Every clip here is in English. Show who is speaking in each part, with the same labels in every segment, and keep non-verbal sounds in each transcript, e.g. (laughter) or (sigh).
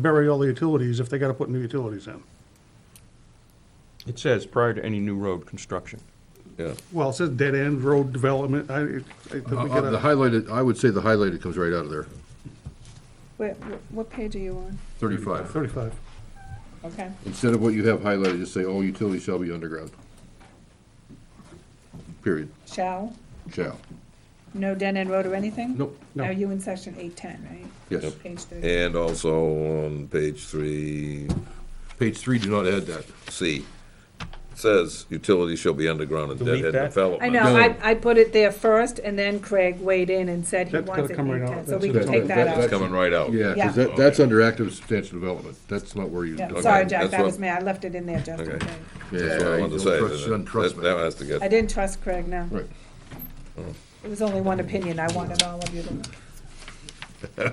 Speaker 1: bury all the utilities if they gotta put new utilities in.
Speaker 2: It says prior to any new road construction.
Speaker 3: Yeah.
Speaker 1: Well, it says dead end road development, I, I think we
Speaker 3: Uh, uh, The
Speaker 1: gotta,
Speaker 3: highlighted, I would say the highlighted comes right out of there,
Speaker 4: Wait, wh- what page are you on?
Speaker 3: thirty-five.
Speaker 1: thirty-five.
Speaker 4: Okay.
Speaker 3: Instead of what you have highlighted, just say all utilities shall be underground. Period,
Speaker 4: Shall,
Speaker 3: shall.
Speaker 4: no dead end road or anything?
Speaker 3: Nope.
Speaker 1: No.
Speaker 4: Are you in section eight ten, right?
Speaker 3: Yes.
Speaker 4: Page thirty.
Speaker 5: And also on page three,
Speaker 3: Page three, do not add that.
Speaker 5: C, it says utilities shall be underground and
Speaker 2: Delete
Speaker 5: deadhead
Speaker 2: that.
Speaker 5: development.
Speaker 4: I know, I, I put it there first, and then Craig weighed in and said he
Speaker 1: That's gotta
Speaker 4: wants it eight
Speaker 1: come right out.
Speaker 4: ten, so we
Speaker 1: That's-
Speaker 4: can take
Speaker 3: that-
Speaker 4: that
Speaker 3: that-
Speaker 4: out.
Speaker 5: It's coming right out.
Speaker 3: Yeah,
Speaker 4: Yeah.
Speaker 3: because that, that's under active substantial development. That's not where you.
Speaker 4: Yeah,
Speaker 3: Okay.
Speaker 4: Sorry, Jack,
Speaker 5: that's
Speaker 4: that
Speaker 5: what-
Speaker 4: was me, I left it in there just in
Speaker 5: Okay.
Speaker 4: case.
Speaker 3: Yeah,
Speaker 5: That's what I wanted to
Speaker 3: don't
Speaker 5: say.
Speaker 3: trust-
Speaker 5: that-
Speaker 3: don't trust
Speaker 5: that-
Speaker 3: me.
Speaker 5: That has to
Speaker 4: I
Speaker 5: get,
Speaker 4: didn't trust Craig, no.
Speaker 3: Right.
Speaker 4: It was only one opinion, I wanted all of you to know.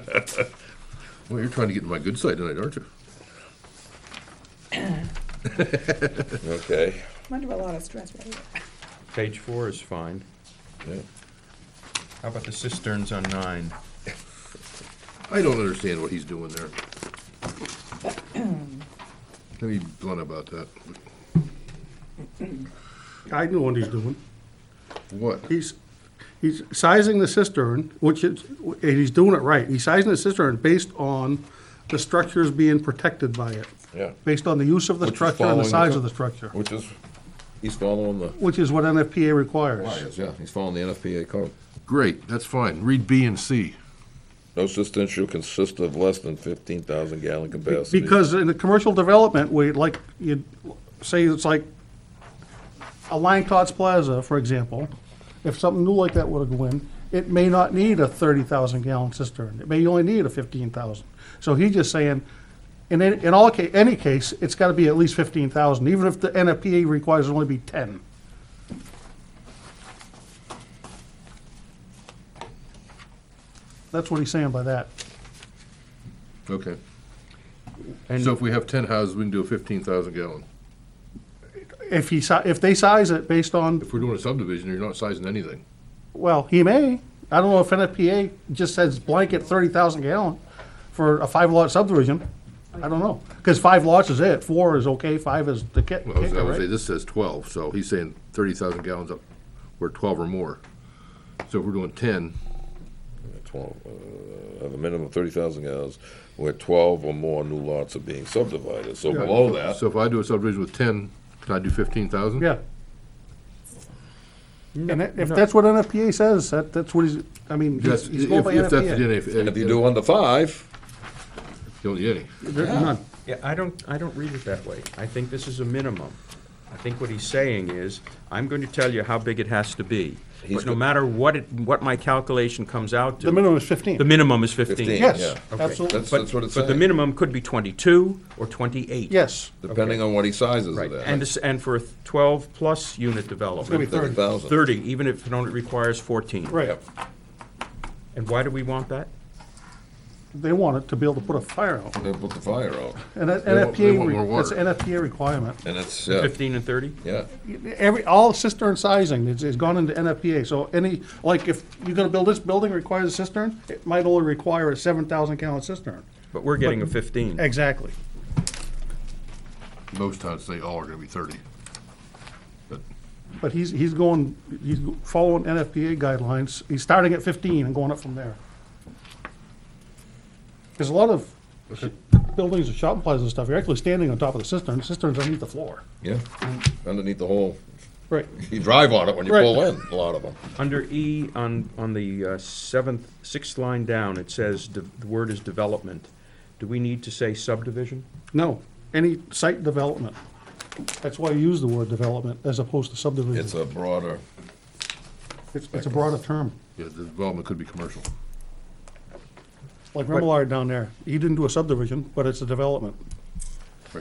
Speaker 3: Well, you're trying to get to my good side tonight, aren't you?
Speaker 5: (laughs) okay.
Speaker 4: I'm under a lot of stress right now.
Speaker 2: Page four is fine.
Speaker 5: Yeah.
Speaker 2: How about the cisterns on nine?
Speaker 3: I don't understand what he's doing there. Let me be blunt about that.
Speaker 1: I know what he's doing.
Speaker 3: What?
Speaker 1: He's, he's sizing the cistern, which is, and he's doing it right. He's sizing the cistern based on the structures being protected by it,
Speaker 5: Yeah,
Speaker 1: based on the use of the
Speaker 5: Which is
Speaker 1: structure and the size
Speaker 5: following the co-
Speaker 1: of the structure,
Speaker 5: which is, he's following the,
Speaker 1: which is what NFPA requires.
Speaker 5: yeah, he's following the NFPA code.
Speaker 3: Great, that's fine. Read B and C.
Speaker 5: No system shall consist of less than fifteen thousand gallon capacity.
Speaker 1: Because in the commercial development, we, like, you, say it's like a Lang Tots Plaza, for example, if something new like that were to go in, it may not need a thirty thousand gallon cistern, it may only need a fifteen thousand. So he's just saying, in, any- in all ca, any case, it's gotta be at least fifteen thousand, even if the NFPA requires it only be ten. That's what he's saying by that.
Speaker 3: Okay.
Speaker 2: And-
Speaker 3: So if we have ten houses, we can do a fifteen thousand gallon.
Speaker 1: If he, si- if they size it based on
Speaker 3: If we're doing a subdivision, you're not sizing anything.
Speaker 1: Well, he may. I don't know if NFPA just says blanket thirty thousand gallon for a five lot subdivision. I don't know, because five lots is it, four is okay, five is the kick,
Speaker 3: Well, I was- I
Speaker 1: kicker,
Speaker 3: would say,
Speaker 1: right?
Speaker 3: this says twelve, so he's saying thirty thousand gallons up, we're twelve or more. So if we're doing ten,
Speaker 5: Twelve, uh, have a minimum of thirty thousand gallons, where twelve or more new lots are being subdivided, so below that,
Speaker 3: so if I do a subdivision with ten, can I do fifteen thousand?
Speaker 1: Yeah. And that- if that's what NFPA says, that, that's what he's, I mean,
Speaker 3: That's,
Speaker 1: he's he's going
Speaker 3: if,
Speaker 1: by
Speaker 3: if that's the
Speaker 1: NFPA.
Speaker 3: NFPA.
Speaker 5: if you do under five,
Speaker 3: Don't need any.
Speaker 1: There- none.
Speaker 2: Yeah, I don't, I don't read it that way. I think this is a minimum. I think what he's saying is, I'm going to tell you how big it has to be.
Speaker 5: He's
Speaker 2: But no
Speaker 5: go-
Speaker 2: matter what it, what my calculation comes out to.
Speaker 1: The minimum is
Speaker 2: The
Speaker 1: fifteen.
Speaker 2: minimum is fifteen.
Speaker 5: Yeah.
Speaker 1: Yes,
Speaker 2: Okay.
Speaker 1: absolutely,
Speaker 5: that's,
Speaker 2: But-
Speaker 5: that's what it's
Speaker 2: But the
Speaker 5: saying,
Speaker 2: minimum could be twenty-two or twenty-eight.
Speaker 1: yes.
Speaker 5: depending on what he sizes
Speaker 2: Right,
Speaker 5: it
Speaker 2: and
Speaker 5: at.
Speaker 2: this, and for a twelve-plus unit
Speaker 1: It's
Speaker 2: development,
Speaker 1: gonna be
Speaker 5: Thirty thousand,
Speaker 2: thirty, even if it only requires fourteen.
Speaker 1: Right.
Speaker 2: And why do we want that?
Speaker 1: They want it to be able to put a fire out.
Speaker 5: they put the fire out,
Speaker 1: And that
Speaker 3: They want- they
Speaker 1: NFPA,
Speaker 3: want more
Speaker 1: re- that's
Speaker 3: water.
Speaker 1: NFPA requirement.
Speaker 5: and it's, yeah,
Speaker 2: Fifteen and thirty?
Speaker 5: yeah.
Speaker 1: Every, all cistern sizing is, is gone into NFPA, so any, like, if you're gonna build this building requires a cistern, it might only require a seven thousand gallon cistern.
Speaker 2: But we're getting a fifteen.
Speaker 1: Exactly.
Speaker 3: Most towns say all are gonna be thirty. But
Speaker 1: But he's, he's going, he's following NFPA guidelines, he's starting at fifteen and going up from there. Cause a lot of sh- buildings and shopping plazas and stuff, you're actually standing on top of the cistern, cisterns underneath the floor.
Speaker 5: Yeah, underneath the whole,
Speaker 1: Right.
Speaker 5: you drive on it when you
Speaker 1: Right.
Speaker 5: pull in, a lot of them.
Speaker 2: Under E, on, on the uh, seventh, sixth line down, it says, de- the word is development. Do we need to say subdivision?
Speaker 1: No, any site development, that's why I use the word development as opposed to subdivision.
Speaker 5: It's a broader,
Speaker 1: It's, it's a broader term.
Speaker 3: yeah, the development could be commercial.
Speaker 1: Like Remillard down there, he didn't do a subdivision, but it's a development.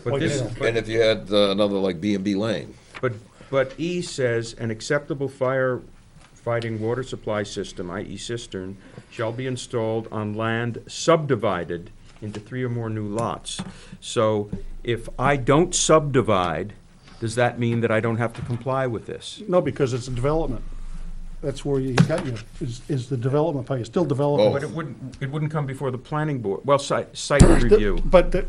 Speaker 2: But this,
Speaker 1: yeah.
Speaker 5: and if you had uh, another like B and B lane,
Speaker 2: but, but E says, an acceptable firefighting water supply system, i.e. cistern, shall be installed on land subdivided into three or more new lots. So if I don't subdivide, does that mean that I don't have to comply with this?
Speaker 1: No, because it's a development. that's where he got you, is, is the
Speaker 2: Oh,
Speaker 1: development part. You're still developing.
Speaker 2: But it wouldn't, it wouldn't come before the planning board, well, site, site review.
Speaker 1: But the,